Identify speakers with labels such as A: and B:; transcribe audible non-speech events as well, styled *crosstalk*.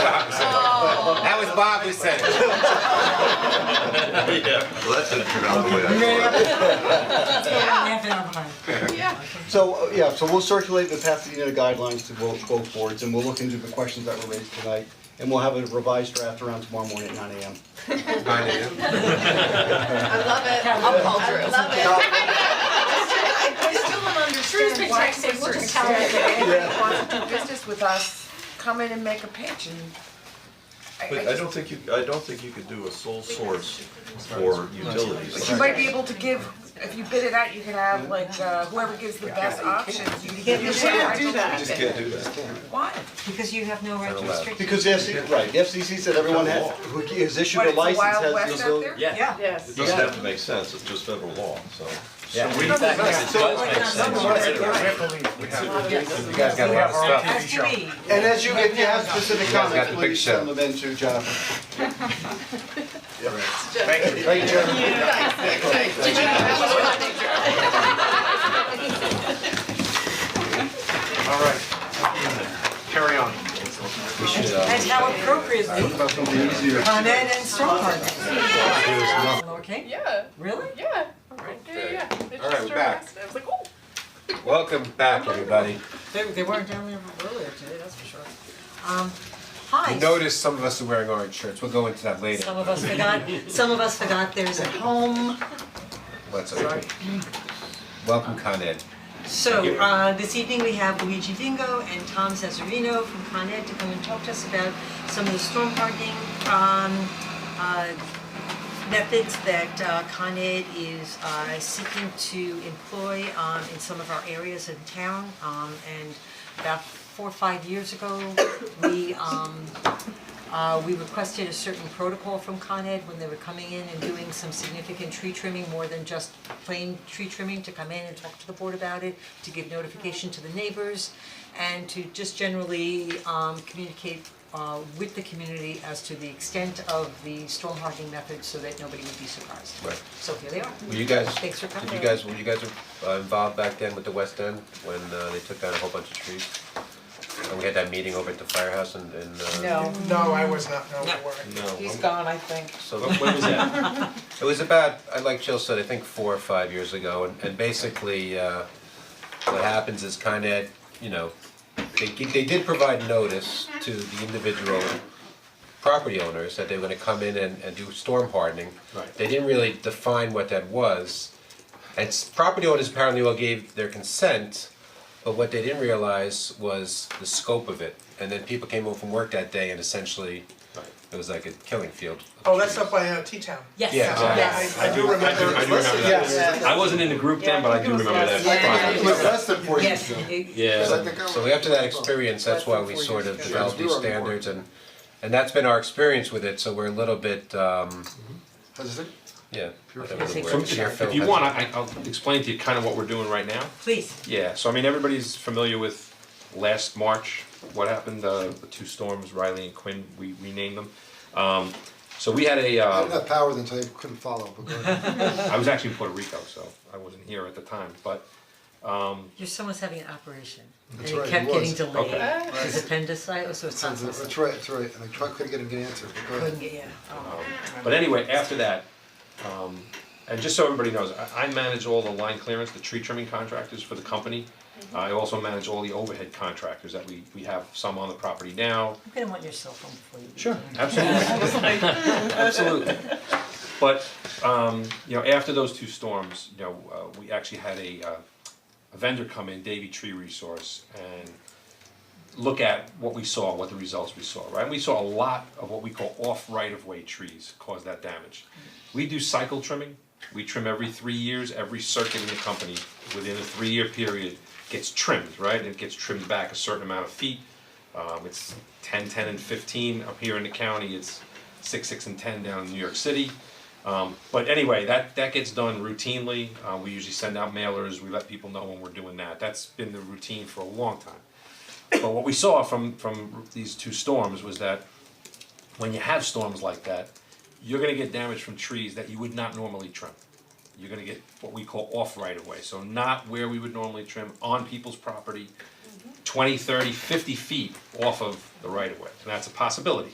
A: That was Bob who said it.
B: Well, that's an anomaly.
C: So, uh, yeah, so we'll circulate the Pasadena guidelines to both, both boards, and we'll look into the questions that were raised tonight, and we'll have a revised draft around tomorrow morning at nine AM.
B: Nine AM.
D: I love it. I'll call Drew. I love it. I still don't understand why to a certain extent, anyone wants to do business with us, come in and make a pitch and I
B: But I don't think you, I don't think you could do a sole source for utilities.
D: You might be able to give, if you bid it out, you can have like uh, whoever gives the best options, you can give your right to
B: You just
D: bid it.
B: can't do that.
D: Why?
E: Because you have no right to
B: allowed.
E: restrict.
C: Because the FCC, right, the FCC said everyone has, who is issued
D: What,
C: a
D: it's the
C: license has the
D: Wild West out
C: ability-
D: there?
E: Yeah.
B: It doesn't have to make sense, it's just federal law, so.
E: As to be.
C: And as you, if you have specific
F: got
C: comments,
F: the big
C: please
F: show.
C: send them in to Jonathan. Yeah. Thank you, Jonathan.
F: All right. Carry on.
A: uh,
E: And how appropriately
C: About something easier.
E: Con Ed and Strong Okay,
G: Yeah,
E: really?
G: yeah, right there, yeah. It
A: All right,
G: just
A: we're back.
G: surpassed it. I was like, oh.
A: Welcome back, everybody.
E: They they weren't down there earlier today, that's for sure. Um, hi.
F: I noticed some of us are wearing orange shirts. We'll go into that later.
E: Some of us forgot, some of us forgot there's a home.
F: Let's open. Welcome, Con Ed.
E: So, uh, this evening we have Luigi Dingo and Tom Cesarino from Con Ed to come and talk to us about some of the storm hardening, um, uh, methods that uh, Con Ed is, uh, seeking to employ, um, in some of our areas in town. Um, and about four or five years ago, we, um, uh, we requested a certain protocol from Con Ed when they were coming in and doing some significant tree trimming, more than just plain tree trimming, to come in and talk to the board about it, to give notification to the neighbors, and to just generally um communicate uh with the community as to the extent of the storm hardening method so that nobody would be surprised.
F: Right.
E: So here they are.
F: Were you guys,
E: Thanks for
F: did you
E: coming.
F: guys, were you guys uh, involved back then with the West End when uh, they took down a whole bunch of trees? And we had that meeting over at the firehouse and, and, uh.
G: No, I was not, no,
E: No.
F: No.
D: He's gone, I think.
F: So
A: When was that?
F: It was about, I- like Jill said, I think four or five years ago, and, and basically, uh, what happens is Con Ed, you know, they, gi- they did provide notice to the individual property owners that they were gonna come in and, and do storm hardening.
A: Right.
F: They didn't really define what that was, and s- property owners apparently all gave their consent, but what they didn't realize was the scope of it. And then people came home from work that day and essentially, it was like a killing field. of
H: Oh, that's
F: trees.
H: up by uh, T-Town.
E: Yes.
F: Yeah, exactly.
E: Yes.
H: I, I do remember.
A: I do remember that. I wasn't in the group then, but I do remember that.
C: It was less than four years
E: Yes.
C: ago.
E: It-
A: Yeah.
F: So after that experience, that's why we sort of developed these standards and, and that's been our experience with it, so we're a little bit, um,
C: How's it?
F: yeah. whatever the
A: So
F: word,
A: if-
F: careful.
A: if you want, I I'll explain to you kind of what we're doing right now.
E: Please.
A: Yeah, so I mean, everybody's familiar with last March, what happened, uh, the two storms, Riley and Quinn, we renamed them. Um, so we had a, uh.
I: I didn't have powers until I couldn't follow, but go ahead.
A: I was actually in Puerto Rico, so I wasn't here at the time, but
E: Your son was having an operation, and
I: That's
E: it
I: right,
E: kept
I: he
E: getting
I: was.
E: delayed.
A: Okay.
E: His appendicitis, so it's not supposed
I: That's right, that's right, and I tried, couldn't get him to answer, but go ahead.
E: couldn't get, Oh. yeah.
A: but anyway, after that, um, and just so everybody knows, I, I manage all the line clearance, the tree trimming contractors for the company. I also manage all the overhead contractors that we, we have some on the property now,
E: I'm gonna want your cell phone before you. do that.
A: Absolutely. *laughs* Absolutely. But, um, you know, after those two storms, you know, uh, we actually had a, uh, a vendor come in, Davy Tree Resource, and look at what we saw, what the results we saw, right? And we saw a lot of what we call off right-of-way trees cause that damage. We do cycle trimming, we trim every three years, every circuit in the company, within a three-year period, gets trimmed, right? It gets trimmed back a certain amount of feet, um, it's ten, ten and fifteen up here in the county, it's six, six and ten down in New York City. Um, but anyway, that, that gets done routinely, uh, we usually send out mailers, we let people know when we're doing that, that's been the routine for a long time. But what we saw from, from these two storms was that when you have storms like that, you're gonna get damage from trees that you would not normally trim. You're gonna get what we call off right of way, so not where we would normally trim, on people's property, 20, 30, 50 feet off of the right of way, and that's a possibility.